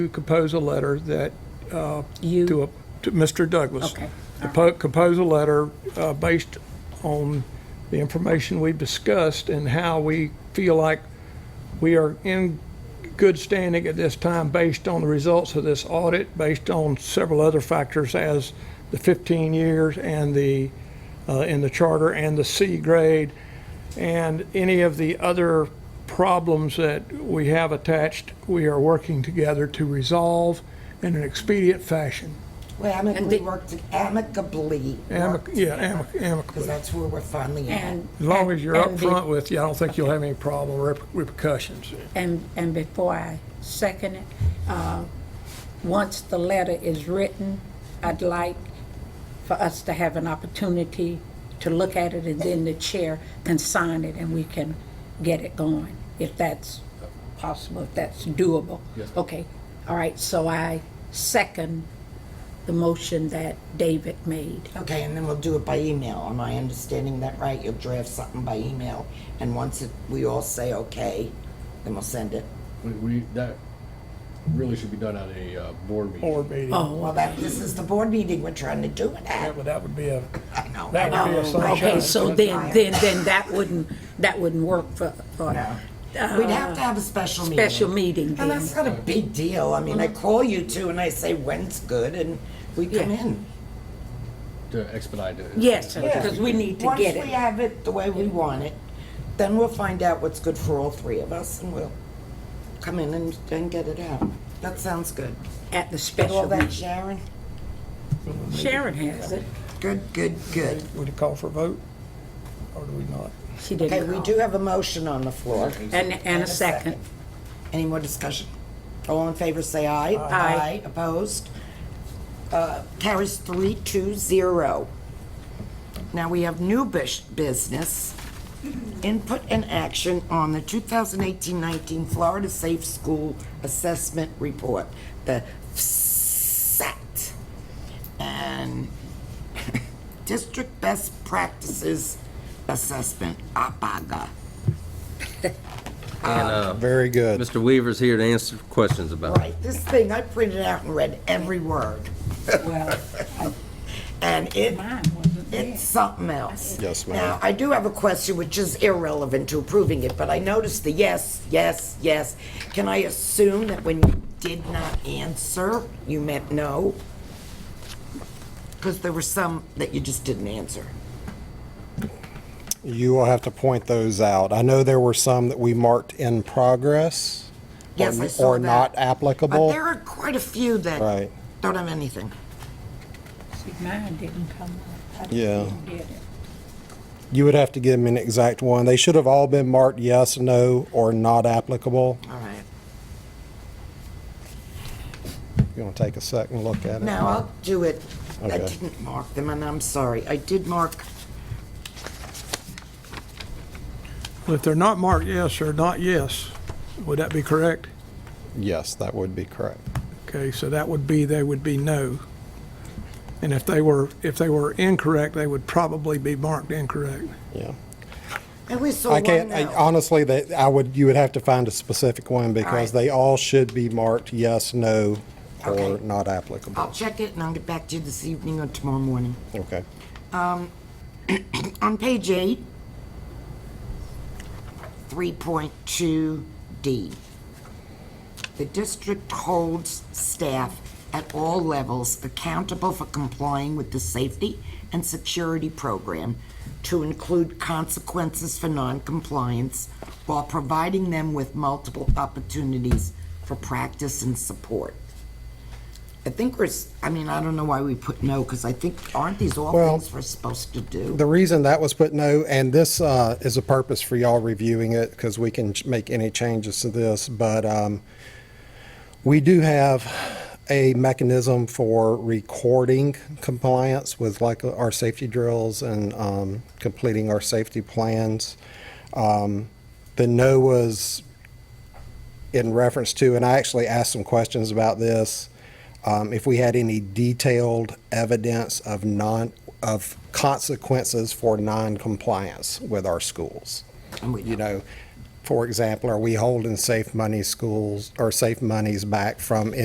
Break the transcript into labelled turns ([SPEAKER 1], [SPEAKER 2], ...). [SPEAKER 1] to compose a letter that, uh,
[SPEAKER 2] You-
[SPEAKER 1] to, a- to Mr. Douglas.
[SPEAKER 2] Okay.
[SPEAKER 1] Compo- Compose a letter uh, based on the information we've discussed and how we feel like we are in good standing at this time based on the results of this audit, based on several other factors as the 15 years and the, uh, in the charter and the C grade, and any of the other problems that we have attached, we are working together to resolve in an expedient fashion.
[SPEAKER 3] We amicably
[SPEAKER 2] the-
[SPEAKER 3] worked, amicably.
[SPEAKER 1] Amic,
[SPEAKER 3] worked
[SPEAKER 1] yeah,
[SPEAKER 3] together,
[SPEAKER 1] amic-
[SPEAKER 3] 'cause
[SPEAKER 1] amicably.
[SPEAKER 3] that's where we're finally at.
[SPEAKER 2] And.
[SPEAKER 1] As long as you're
[SPEAKER 2] and be-
[SPEAKER 1] upfront with you, I don't think you'll have any problem or rep- repercussions.
[SPEAKER 2] And, and before I second it, uh, once the letter is written, I'd like for us to have an opportunity to look at it and then the chair can sign it and we can get it going, if that's possible, if that's doable. Okay, all right, so I second the motion that David made.
[SPEAKER 3] Okay, and then we'll do it by email. Am I understanding that right? You'll draft something by email, and once it- we all say okay, then we'll send it.
[SPEAKER 4] We, we, that really should be done at a uh, board meeting.
[SPEAKER 1] Board meeting,
[SPEAKER 3] Well,
[SPEAKER 2] Oh,
[SPEAKER 3] that, this is the board meeting we're trying to do it at.
[SPEAKER 1] that would, that would be a,
[SPEAKER 3] I know.
[SPEAKER 1] that
[SPEAKER 3] I
[SPEAKER 1] would be a
[SPEAKER 3] know.
[SPEAKER 1] sunshine.
[SPEAKER 2] Um, okay, so then,
[SPEAKER 3] Fine.
[SPEAKER 2] then, then that wouldn't, that wouldn't work for, for.
[SPEAKER 3] No. We'd have to have a special meeting.
[SPEAKER 2] Uh, special meeting
[SPEAKER 3] And
[SPEAKER 2] then.
[SPEAKER 3] that's not a big deal. I mean, I call you two and I say when's good, and we come
[SPEAKER 2] Yeah.
[SPEAKER 3] in.
[SPEAKER 4] To expedite it.
[SPEAKER 2] Yes, because we need to get
[SPEAKER 3] Once we
[SPEAKER 2] it.
[SPEAKER 3] have it the way we want it, then we'll find out what's good for all three of us, and we'll come in and, and get it out. That sounds good.
[SPEAKER 2] At the
[SPEAKER 3] Get all
[SPEAKER 2] special
[SPEAKER 3] that,
[SPEAKER 2] meeting.
[SPEAKER 3] Sharon?
[SPEAKER 2] Sharon has it.
[SPEAKER 3] Good, good, good.
[SPEAKER 1] Would you call for a vote? Or do we not?
[SPEAKER 2] She
[SPEAKER 3] Okay,
[SPEAKER 2] didn't
[SPEAKER 3] we
[SPEAKER 2] call.
[SPEAKER 3] do have a motion on the floor.
[SPEAKER 2] And, and a second.
[SPEAKER 3] Any more discussion? All in favor, say aye.
[SPEAKER 2] Aye.
[SPEAKER 3] Opposed? Uh, Carries three, two, zero. Now, we have new bus- business, input and action on the 2018-19 Florida Safe School Assessment Report, the FSAT. And District Best Practices Assessment, APAGA.
[SPEAKER 5] Very good.
[SPEAKER 6] Mr. Weaver's here to answer questions about it.
[SPEAKER 3] Right, this thing, I printed out and read every word,
[SPEAKER 2] Well,
[SPEAKER 3] and it,
[SPEAKER 2] mine wasn't there.
[SPEAKER 3] it's something else.
[SPEAKER 5] Yes, ma'am.
[SPEAKER 3] Now, I do have a question which is irrelevant to approving it, but I noticed the yes, yes, yes. Can I assume that when you did not answer, you meant no? Because there were some that you just didn't answer.
[SPEAKER 5] You will have to point those out. I know there were some that we marked in progress.
[SPEAKER 3] Yes, I
[SPEAKER 5] or-
[SPEAKER 3] saw
[SPEAKER 5] Or
[SPEAKER 3] that.
[SPEAKER 5] not
[SPEAKER 3] But
[SPEAKER 5] applicable.
[SPEAKER 3] there are quite a few that
[SPEAKER 5] Right.
[SPEAKER 3] don't have anything.
[SPEAKER 2] see, mine didn't come up. I just
[SPEAKER 5] Yeah.
[SPEAKER 2] didn't get it.
[SPEAKER 5] You would have to give them an exact one. They should have all been marked yes, no, or not applicable.
[SPEAKER 3] All right.
[SPEAKER 5] You want to take a second look at it?
[SPEAKER 3] No, I'll do it. I
[SPEAKER 5] Okay.
[SPEAKER 3] didn't mark them, and I'm sorry. I did mark
[SPEAKER 1] Well, if they're not marked yes or not yes, would that be correct?
[SPEAKER 5] Yes, that would be correct.
[SPEAKER 1] Okay, so that would be, they would be no. And if they were, if they were incorrect, they would probably be marked incorrect.
[SPEAKER 5] Yeah.
[SPEAKER 3] I only saw
[SPEAKER 5] I
[SPEAKER 3] Oh, one
[SPEAKER 5] can't, I-
[SPEAKER 3] no.
[SPEAKER 5] honestly, that, I would, you would have to find a specific one
[SPEAKER 3] right.
[SPEAKER 5] because they all should be marked yes, no, or
[SPEAKER 3] Okay.
[SPEAKER 5] not applicable.
[SPEAKER 3] I'll check it and I'll get back to you this evening or tomorrow morning.
[SPEAKER 5] Okay.
[SPEAKER 3] On page eight, 3.2D. The district holds staff at all levels accountable for complying with the safety and security program to include consequences for noncompliance while providing them with multiple opportunities for practice and support. I think we're, s- I mean, I don't know why we put no, because I think, aren't these all
[SPEAKER 5] Well,
[SPEAKER 3] things we're supposed to do?
[SPEAKER 5] The reason that was put no, and this uh, is a purpose for y'all reviewing it, because we can ch- make any changes to this, but um, we do have a mechanism for recording compliance with like uh, our safety drills and um, completing our safety plans. Um, The no was in reference to, and I actually asked some questions about this, um, if we had any detailed evidence of non, of consequences for non-compliance with our schools.
[SPEAKER 3] And we
[SPEAKER 5] You know, for example, are we holding safe money schools, or safe monies back from